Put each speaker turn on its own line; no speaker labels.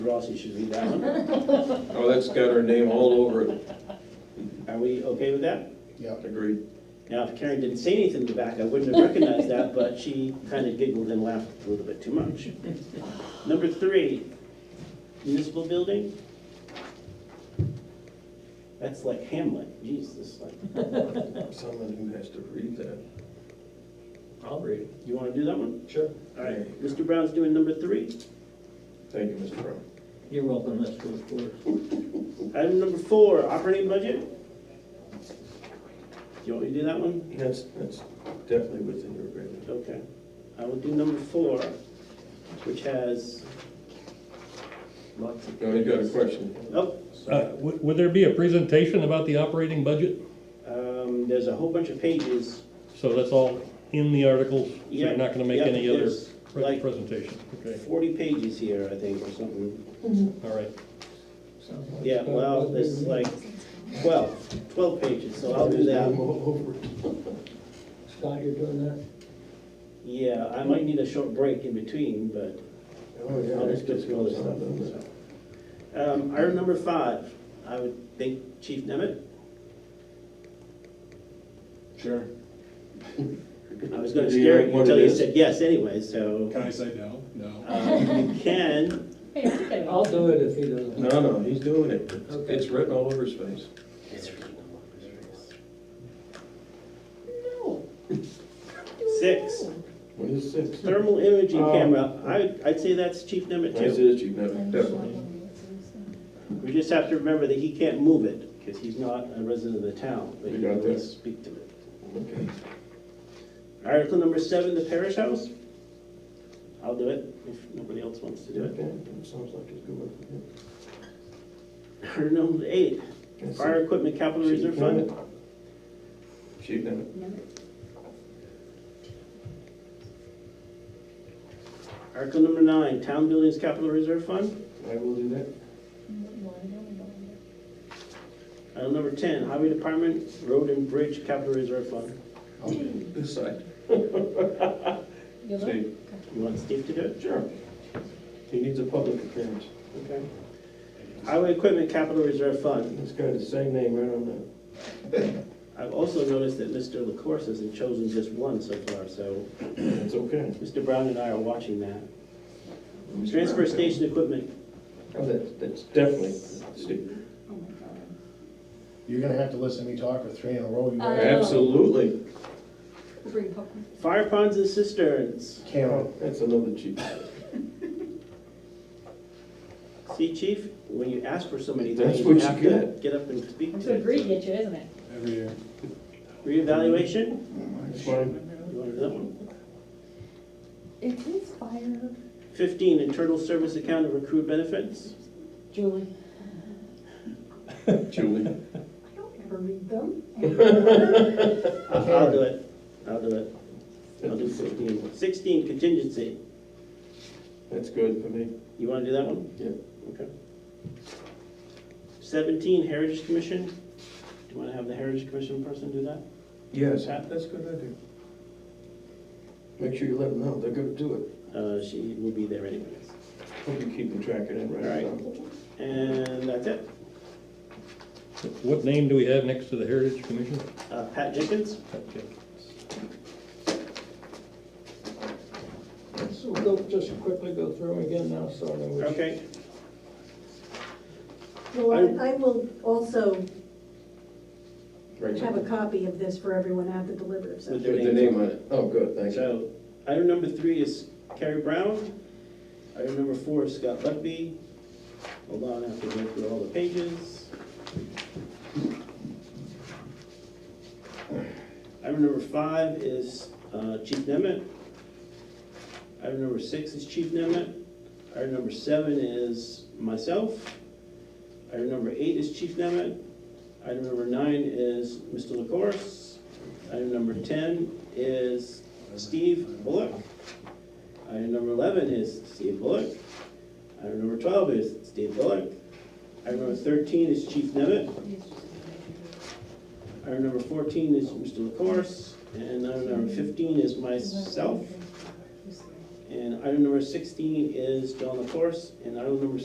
Rossi should read that one.
Oh, that's got our name all over it.
Are we okay with that?
Yeah,
Agreed.
Now, if Karen didn't say anything in the back, I wouldn't have recognized that, but she kind of giggled and laughed a little bit too much. Number three, municipal building. That's like Hamlet, jeez, this is like,
Someone who has to read that.
I'll read it.
you want to do that one?
Sure.
All right, Mr. Brown's doing number three.
Thank you, Mr. Brown.
You're welcome, Mr. Porter.
Item number four, operating budget. Do you want me to do that one?
That's, that's definitely within your agreement.
Okay, I will do number four, which has lots of.
No, you got a question.
Oh,
Uh, w- Would there be a presentation about the operating budget?
um, there's a whole bunch of pages.
So that's all in the article, so
Yeah,
you're not gonna make
yeah,
any other
there's
pre-
like-
presentation? Okay,
Forty pages here, I think, or something.
all right.
Sounds like-
Yeah, well, this is like twelve, twelve pages, so I'll do that.
Scott, you're doing that?
Yeah, I might need a short break in between, but
Oh, yeah.
I'll just go through all this stuff. Um, item number five, I would think Chief Nemeth,
Sure.
I was gonna
Do you
scare
know
you
what
until
it
you
is?
said yes anyway, so.
Can I say no? No.
Um, you can,
Hey, I think I
I'll do it if he doesn't.
No, no, he's doing it. It's-
Okay.
It's written all over his face.
No.
Six,
When is six?
thermal imaging
Oh.
camera, I, I'd say that's Chief Nemeth
When is
too.
it, Chief? No, Definitely.
We just have to remember that he can't move it, because he's not a resident of the town, but
We
he
got
can always
this.
speak to it.
Okay.
Article number seven, the parish house? I'll do it, if nobody else wants to do it.
Okay, that sounds like it's good one.
Article number eight,
That's it.
fire equipment capital
Chief
reserve fund?
Nemet. Chief Nemet.
Article number nine, town buildings capital reserve fund?
I will do that.
Article number ten, highway department, road and bridge capital reserve fund.
I'll do this side.
You look,
Steve.
You want Steve to do it?
Sure. He needs a public appearance.
Okay. Highway equipment capital reserve fund.
It's got the same name right on that.
I've also noticed that Mr. LaCourse hasn't chosen just one so far, so
It's okay.
Mr. Brown and I are watching that. Transfer station equipment,
Oh, that's, that's definitely Steve.
oh my god.
you're gonna have to listen to me talk for three in a row, you
Uh,
guys.
Absolutely.
Bring popcorn.
fire ponds and cisterns.
Cameron,
That's another cheap.
See, chief, when you ask for so many
That's
things, you
what you
have to
get.
get up and speak
It's
to
a great
it.
nature, isn't it?
Every year.
Reevaluation,
It's fine.
you want to do that one?
It is fire.
Fifteen, internal service account and recruit benefits.
Julie.
Julie.
I don't ever read them.
I'll I'll do it, I'll do it. I'll do fifteen. Sixteen, contingency,
That's good for me.
you want to do that one?
Yeah.
Okay. Seventeen, heritage commission, do you want to have the heritage commission person do that?
Yes, that's a good idea. Make sure you let them know, they're gonna do it.
Uh, she will be there anyways.
Hope you keep them track of that right
All
now.
And that's it.
What name do we have next to the Heritage Commission?
Uh, Pat Jenkins?
Okay.
So we'll go, just quickly go through them again now, starting with.
Okay.
Well, I- I will also
Right
have a
now.
copy of this for everyone at the deliberative session.
With
Put the name on it. Oh, good, thank you.
So, item number three is Carrie Brown. Item number four is Scott Lutby. Hold on, I have to go through all the pages. Item number five is uh, Chief Nemeth. Item number six is Chief Nemeth. Item number seven is myself. Item number eight is Chief Nemeth. Item number nine is Mr. LaCourse. Item number ten is Steve Bullock. Item number eleven is Steve Bullock. Item number twelve is Steve Bullock. Item number thirteen is Chief Nemeth. Item number fourteen is Mr. LaCourse. And item number fifteen is myself. And item number sixteen is John LaCourse. And item number